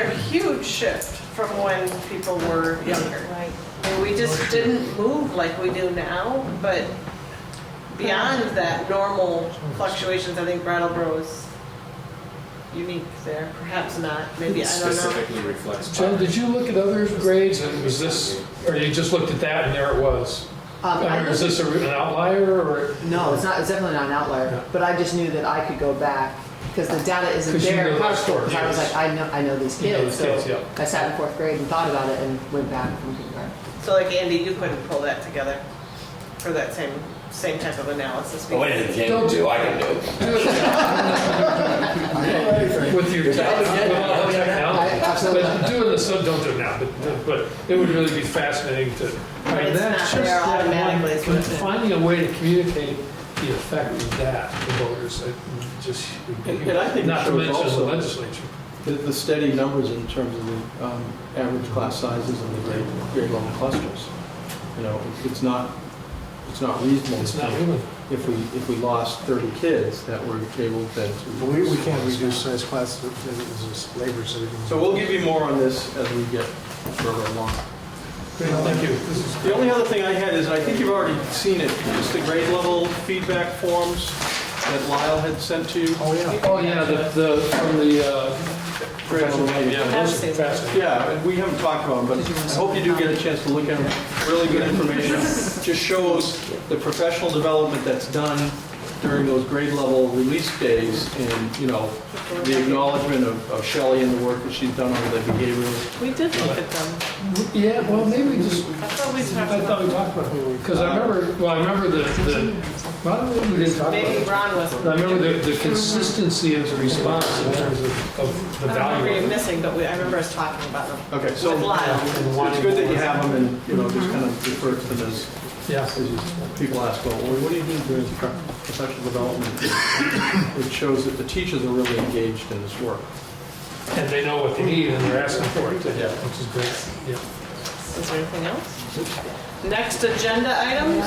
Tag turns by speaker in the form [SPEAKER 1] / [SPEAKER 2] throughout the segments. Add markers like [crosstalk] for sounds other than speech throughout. [SPEAKER 1] huge shift from when people were younger.
[SPEAKER 2] Right.
[SPEAKER 1] I mean, we just didn't move like we do now, but beyond that normal fluctuations, I think Brattleboro is unique there, perhaps not, maybe, I don't know.
[SPEAKER 3] Specifically reflects.
[SPEAKER 4] John, did you look at other grades and was this, or you just looked at that and there it was?
[SPEAKER 2] Um,
[SPEAKER 4] I
[SPEAKER 2] I
[SPEAKER 4] mean, is
[SPEAKER 2] looked-
[SPEAKER 4] this a- an outlier or?
[SPEAKER 2] No, it's not, it's definitely not an outlier, but I just knew that I could go
[SPEAKER 5] [laughs]
[SPEAKER 2] back, because the data isn't
[SPEAKER 4] 'Cause you
[SPEAKER 2] there.
[SPEAKER 4] knew
[SPEAKER 2] in
[SPEAKER 4] that
[SPEAKER 2] PowerScore, 'cause I was
[SPEAKER 4] yes.
[SPEAKER 2] like, I know, I know these
[SPEAKER 4] You know
[SPEAKER 2] kids,
[SPEAKER 4] the
[SPEAKER 2] so
[SPEAKER 4] kids, yeah.
[SPEAKER 2] I sat in fourth grade and thought about it and went back from kindergarten.
[SPEAKER 1] So like Andy, you couldn't pull that together for that same, same type of analysis.
[SPEAKER 4] Oh,
[SPEAKER 6] But what
[SPEAKER 1] because-
[SPEAKER 6] did Ken do? I can do.
[SPEAKER 4] With your, tech- with all the
[SPEAKER 2] I-
[SPEAKER 4] technology?
[SPEAKER 2] absolutely.
[SPEAKER 4] But doing this, don't do it now, but, but it would really be fascinating to. I mean,
[SPEAKER 1] It's
[SPEAKER 4] that's
[SPEAKER 1] not
[SPEAKER 4] just
[SPEAKER 1] there
[SPEAKER 4] that one-
[SPEAKER 1] automatically, is what
[SPEAKER 4] but
[SPEAKER 1] it is.
[SPEAKER 4] Finding a way to communicate the effect of that to voters, it just, would be
[SPEAKER 5] And- and I think
[SPEAKER 4] huge.
[SPEAKER 5] it
[SPEAKER 4] not to
[SPEAKER 5] shows
[SPEAKER 4] mention the
[SPEAKER 5] also-
[SPEAKER 4] legislature.
[SPEAKER 5] The, the steady numbers in terms of the um, average class sizes and the grade, grade level clusters. You know, it- it's not, it's not reasonable.
[SPEAKER 4] It's
[SPEAKER 5] to
[SPEAKER 4] not
[SPEAKER 5] think
[SPEAKER 4] human.
[SPEAKER 5] If we, if we lost 30 kids that were able then to.
[SPEAKER 7] We, we can't reduce size class, because it's labor savings.
[SPEAKER 5] So we'll give you more on this as we get further along.
[SPEAKER 4] Thank you. This is
[SPEAKER 5] The only other thing I had is, I think you've already seen it, just the grade level feedback forms that Lyle had sent to you.
[SPEAKER 7] Oh, yeah.
[SPEAKER 4] Oh, yeah, the, the, from the, uh,
[SPEAKER 5] Grade level meeting.
[SPEAKER 4] yeah, those are fascinating.
[SPEAKER 5] Yeah, and we haven't talked about them, but I hope you do get a chance to look at them. Really good information. Just shows the professional development that's done during those grade level release days and, you know, the acknowledgement of of Shelley and the work that she's done on the behavioral.
[SPEAKER 1] We did look at them.
[SPEAKER 4] Yeah, well, maybe we just,
[SPEAKER 1] I thought we
[SPEAKER 4] I
[SPEAKER 1] talked
[SPEAKER 4] thought
[SPEAKER 1] about,
[SPEAKER 4] we talked about it, because I remember, well, I remember the, the, well, we didn't talk about
[SPEAKER 1] maybe
[SPEAKER 4] it.
[SPEAKER 1] Ron was.
[SPEAKER 4] I remember the, the consistency of the response in terms of, of
[SPEAKER 1] I
[SPEAKER 4] the
[SPEAKER 1] don't remember
[SPEAKER 4] value
[SPEAKER 1] you
[SPEAKER 4] of it.
[SPEAKER 1] missing, but we, I remember us talking about them
[SPEAKER 5] Okay, so
[SPEAKER 1] with Lyle.
[SPEAKER 4] and
[SPEAKER 5] it's
[SPEAKER 4] wanting
[SPEAKER 5] good that you
[SPEAKER 4] more.
[SPEAKER 5] have them and, you know, just kind of refer to them as,
[SPEAKER 4] Yeah.
[SPEAKER 5] as you- people ask, well, what do you do during pro- professional development? It shows that the teachers are really engaged in this work.
[SPEAKER 4] And they know what they need and they're asking for it, too,
[SPEAKER 5] Yeah.
[SPEAKER 4] which is great, yeah.
[SPEAKER 1] Is there anything else? Next agenda item?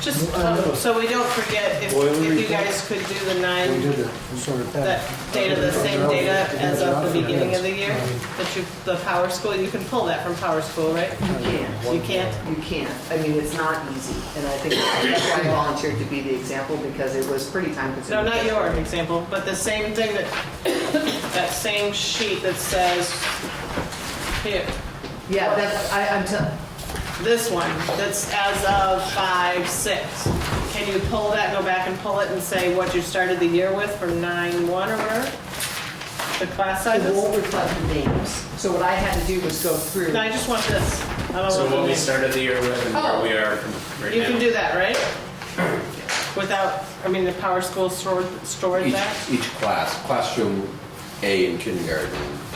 [SPEAKER 1] Just, um, so we don't forget, if, if you guys could do the
[SPEAKER 7] We
[SPEAKER 1] nine,
[SPEAKER 7] did it, we sort of.
[SPEAKER 1] that data, the same data as of the beginning of the year, that you, the Power School, you can pull that from Power School, right?
[SPEAKER 2] You can't.
[SPEAKER 1] You can't?
[SPEAKER 2] You can't. I mean, it's not easy, and I think that's why I volunteered to be the example, because it was pretty time
[SPEAKER 1] No,
[SPEAKER 2] consuming.
[SPEAKER 1] not your example, but the same thing that, [coughs] that same sheet that says, here,
[SPEAKER 2] Yeah, that's, I, I'm tell,
[SPEAKER 1] this one, that's as of five, six. Can you pull that, go back and pull it and say what you started the year with from nine, one or whatever? The class
[SPEAKER 2] it
[SPEAKER 1] sizes?
[SPEAKER 2] won't reflect the names, so what I had to do was go through.
[SPEAKER 1] No, I just want this. I don't
[SPEAKER 3] So
[SPEAKER 1] want
[SPEAKER 3] what
[SPEAKER 1] the
[SPEAKER 3] we
[SPEAKER 1] name.
[SPEAKER 3] started the year with and where we are right now.
[SPEAKER 1] Oh, You can do that, right? Without, I mean, the power school stored, stored
[SPEAKER 6] Each,
[SPEAKER 1] that?
[SPEAKER 6] each class, classroom A in kindergarten.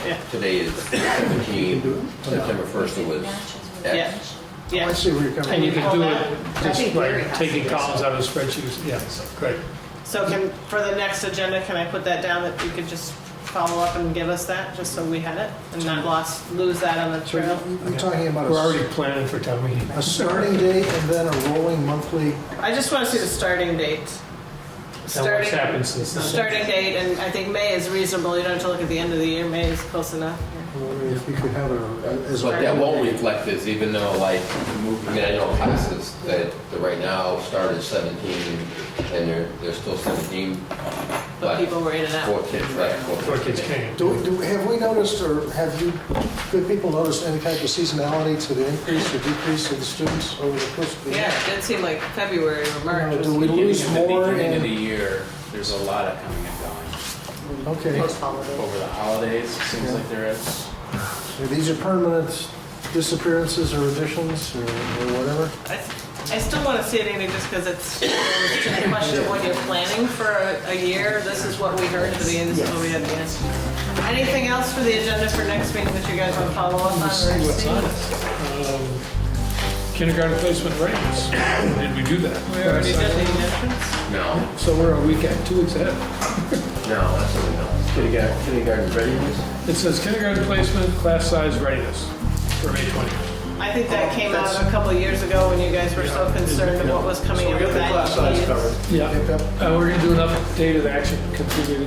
[SPEAKER 1] Yeah.
[SPEAKER 6] Today is 17, September 1st it was
[SPEAKER 1] Yeah.
[SPEAKER 6] X.
[SPEAKER 1] Yeah.
[SPEAKER 7] I see where you're coming
[SPEAKER 4] And you can do it
[SPEAKER 2] think Gary
[SPEAKER 4] just by
[SPEAKER 2] has
[SPEAKER 4] taking
[SPEAKER 2] it.
[SPEAKER 4] columns out of spreadsheets, yeah, so, great.
[SPEAKER 1] So can, for the next agenda, can I put that down that you could just follow up and give us that, just so we had it? And not lost, lose that on the
[SPEAKER 7] So
[SPEAKER 1] trail?
[SPEAKER 7] you- you're talking about a
[SPEAKER 4] We're already
[SPEAKER 7] s-
[SPEAKER 4] planning for town meeting.
[SPEAKER 7] a starting date and then a rolling monthly,
[SPEAKER 1] I just want to see the starting date.
[SPEAKER 4] And what's
[SPEAKER 1] Starting,
[SPEAKER 4] happened since then.
[SPEAKER 1] starting date, and I think May is reasonable, you don't have to look at the end of the year, May is close enough.
[SPEAKER 7] if you could have a, as
[SPEAKER 6] But
[SPEAKER 7] a
[SPEAKER 6] that won't reflect this, even though like, I mean, I know classes that, that right now start at 17 and they're, they're still 17.
[SPEAKER 1] But people were in and out.
[SPEAKER 6] Four kids left.
[SPEAKER 4] Before kids came.
[SPEAKER 7] Do, do, have we noticed, or have you, good people noticed any type of seasonality to the increase or decrease of the students over the course of the year?
[SPEAKER 1] Yeah, it did seem like February or March
[SPEAKER 7] Now,
[SPEAKER 1] was.
[SPEAKER 7] Do we lose more
[SPEAKER 3] Beginning of the
[SPEAKER 7] in,
[SPEAKER 3] year, there's a lot of coming and going.
[SPEAKER 7] okay,
[SPEAKER 2] Post-holiday.
[SPEAKER 3] Over the holidays, it seems like there is.
[SPEAKER 7] so these are permanent disappearances or additions or or whatever?
[SPEAKER 1] I I still want to see it anyway, just because it's it's a question of when you're planning for a a year. This is what we heard at the beginning, this is what we had at the end. Anything else for the agenda for next meeting that you guys want to follow up on? or
[SPEAKER 4] See what's
[SPEAKER 1] anything?
[SPEAKER 4] on it. Um, Kindergarten placement rates, did we do that?
[SPEAKER 1] We already did the additions.
[SPEAKER 6] No,
[SPEAKER 4] So we're a week, at- two weeks ahead.
[SPEAKER 6] no, that's something else. Kindergarten, kindergarten readiness?
[SPEAKER 4] It says kindergarten placement, class size readiness for May 20.
[SPEAKER 1] I think that came out a couple of years ago when you guys were so concerned of what was coming
[SPEAKER 5] So
[SPEAKER 1] up
[SPEAKER 5] we
[SPEAKER 1] with
[SPEAKER 5] got the
[SPEAKER 1] that.
[SPEAKER 5] class size covered.
[SPEAKER 4] Yeah, uh, we're gonna do an updated action, completed